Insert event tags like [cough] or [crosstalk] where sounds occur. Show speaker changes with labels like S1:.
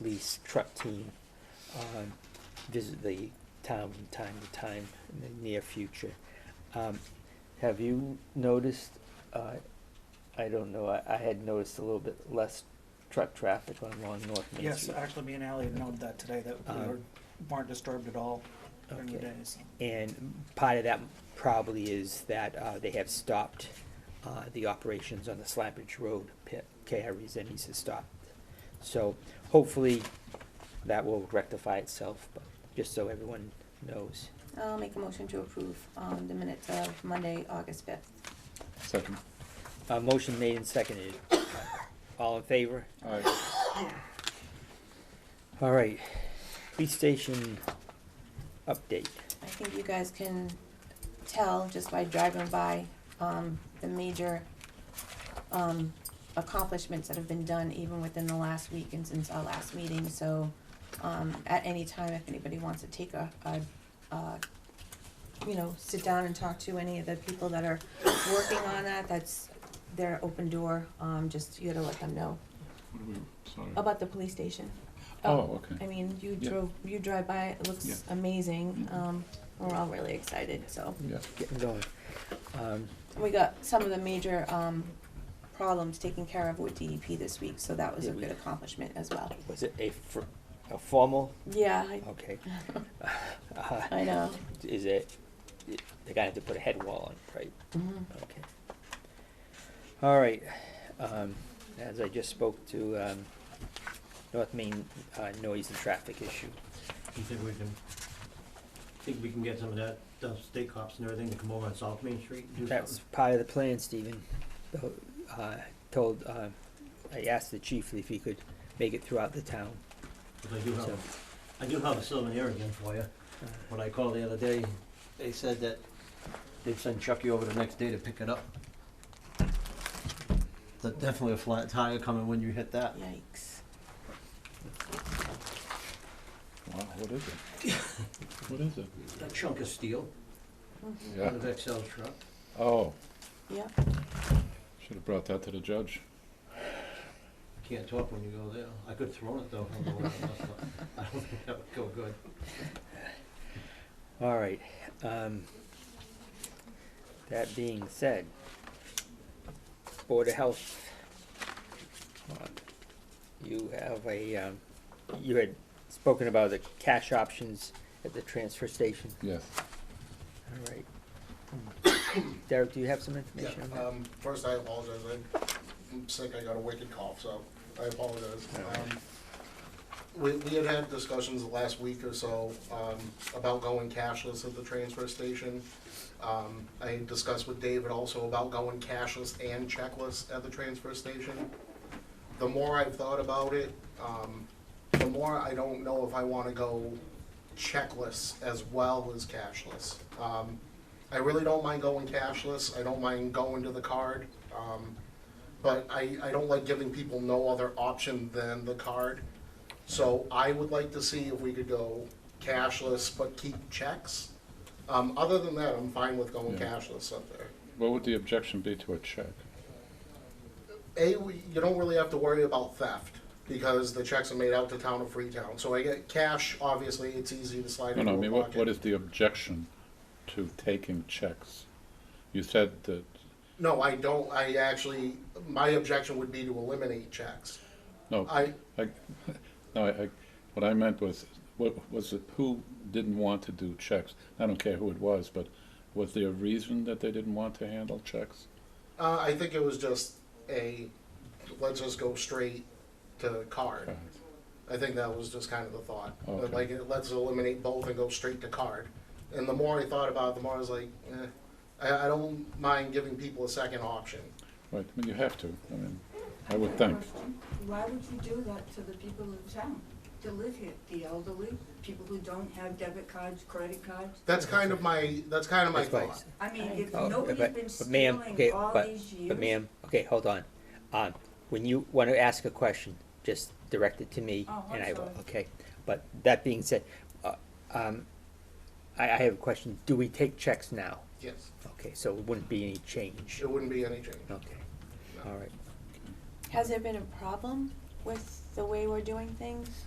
S1: police truck team um, visit the town from time to time in the near future. Um, Have you noticed, uh, I don't know, I I had noticed a little bit less truck traffic on Long North Main
S2: Yes,
S1: Street.
S2: actually, me and Ally had noted that today, that we
S1: Um,
S2: were- weren't disturbed at all during the
S1: Okay.
S2: days.
S1: And part of that probably is that uh, they have stopped uh, the operations on the Slappage Road pit. KRE's Emmys has stopped. So hopefully that will rectify itself, but just so everyone knows.
S3: I'll make a motion to approve um, the minutes of Monday, August 5th.
S4: Second.
S1: Uh, Motion made and seconded. All in favor?
S4: Aye.
S1: All right. Police station update.
S3: I think you guys can tell just by driving by um, the major um, accomplishments that have been done even within the last week and since our last meeting. So um, at any time, if anybody wants to take a, a, uh, you know, sit down and talk to any of the people that are working on that, that's their open door. Um, Just you gotta let them know
S4: What do we- Sorry.
S3: about the police station.
S4: Oh,
S3: I
S4: okay.
S3: mean, you
S4: Yeah.
S3: drove, you drive by, it
S4: Yeah.
S3: looks amazing.
S4: Mhm.
S3: Um, we're all really excited, so.
S4: Yeah.
S1: Getting going. Um,
S3: We got some of the major, um, problems taken care of with DEP this week, so that was a
S1: Yeah, we-
S3: good accomplishment as well.
S1: Was it a fr- a formal?
S3: Yeah, I,
S1: Okay. [laughs] Uh,
S3: I know.
S1: Is it, they're gonna have to put a head wall on, right?
S4: Mm-hmm.
S1: Okay. All right, um, as I just spoke to, um, North Main, uh, noise and traffic issue.
S5: You think we can, think we can get some of that, those state cops and everything to come over on South Main Street and do
S1: That's
S5: something?
S1: part of the plan, Stephen. So, Uh, told, uh, I asked the chief if he could make it throughout the town.
S5: Because I do
S1: So,
S5: have, I do have a silver ear again for you.
S1: uh,
S5: When I called the other day, they said that they'd send Chucky over the next day to pick it up. There's definitely a flat tire coming when you hit that.
S3: Yikes.
S4: Wow, what is it? [laughs] What is it?
S5: A chunk of steel out
S4: Yeah.
S5: of Excel's truck.
S4: Oh,
S3: Yep,
S4: should have brought that to the judge.
S5: Can't talk when you go there. I could throw it though. [laughs] from the window, but I don't think that would go good.
S1: All right, um, that being said, Board of Health, uh, you have a, um, you had spoken about the cash options at the transfer station,
S4: Yes.
S1: all right. [coughs] Derek, do you have some
S6: Yeah,
S1: information on that?
S6: um, first I apologize, I'm sick, I got a wicked cough, so I apologize. Um, We, we had had discussions the last week or so, um, about going cashless at the transfer station. Um, I discussed with David also about going cashless and checkless at the transfer station. The more I've thought about it, um, the more I don't know if I wanna go checkless as well as cashless. Um, I really don't mind going cashless. I don't mind going to the card. Um, but I, I don't like giving people no other option than the card. So I would like to see if we could go cashless but keep checks. Um, other than that, I'm fine with going
S4: Yeah.
S6: cashless up there.
S4: What would the objection be to a check?
S6: A, we- you don't really have to worry about theft because the checks are made out to town of Freetown. So I get cash, obviously, it's easy to slide
S4: No,
S6: into
S4: no, I
S6: a
S4: mean, what,
S6: pocket.
S4: what is the objection to taking checks? You said that,
S6: No, I don't. I actually, my objection would be to eliminate checks.
S4: no,
S6: I,
S4: I, [laughs] no, I, I, what I meant was, what, was it, who didn't want to do checks? I don't care who it was, but was there a reason that they didn't want to handle checks?
S6: Uh, I think it was just a let's just go straight to card. I think that was just kind of the thought.
S4: Okay.
S6: Like it- let's eliminate both and go straight to card. And the more I thought about it, the more I was like, eh, I, I don't mind giving people a second option.
S4: Right, I mean, you have to, I mean, I would think.
S7: Why would you do that to the people of town, to live here, the elderly, people who don't have debit cards, credit cards?
S6: That's kind of my that's kind of my
S1: That's why I
S6: thought.
S1: said-
S7: I mean, if
S1: Oh,
S7: nobody's
S1: but-
S7: been
S1: but ma'am, okay,
S7: stealing all
S1: but-
S7: these years.
S1: But ma'am, okay, hold on. Um, when you wanna ask a question, just direct it to me
S7: Oh, I'm
S1: and I will,
S7: sorry.
S1: okay? But that being said, uh, um, I, I have a question. Do we take checks now?
S6: Yes,
S1: Okay, so it wouldn't be any change?
S6: it wouldn't be any change.
S1: Okay, all right.
S3: Has there been a problem with the way we're doing things?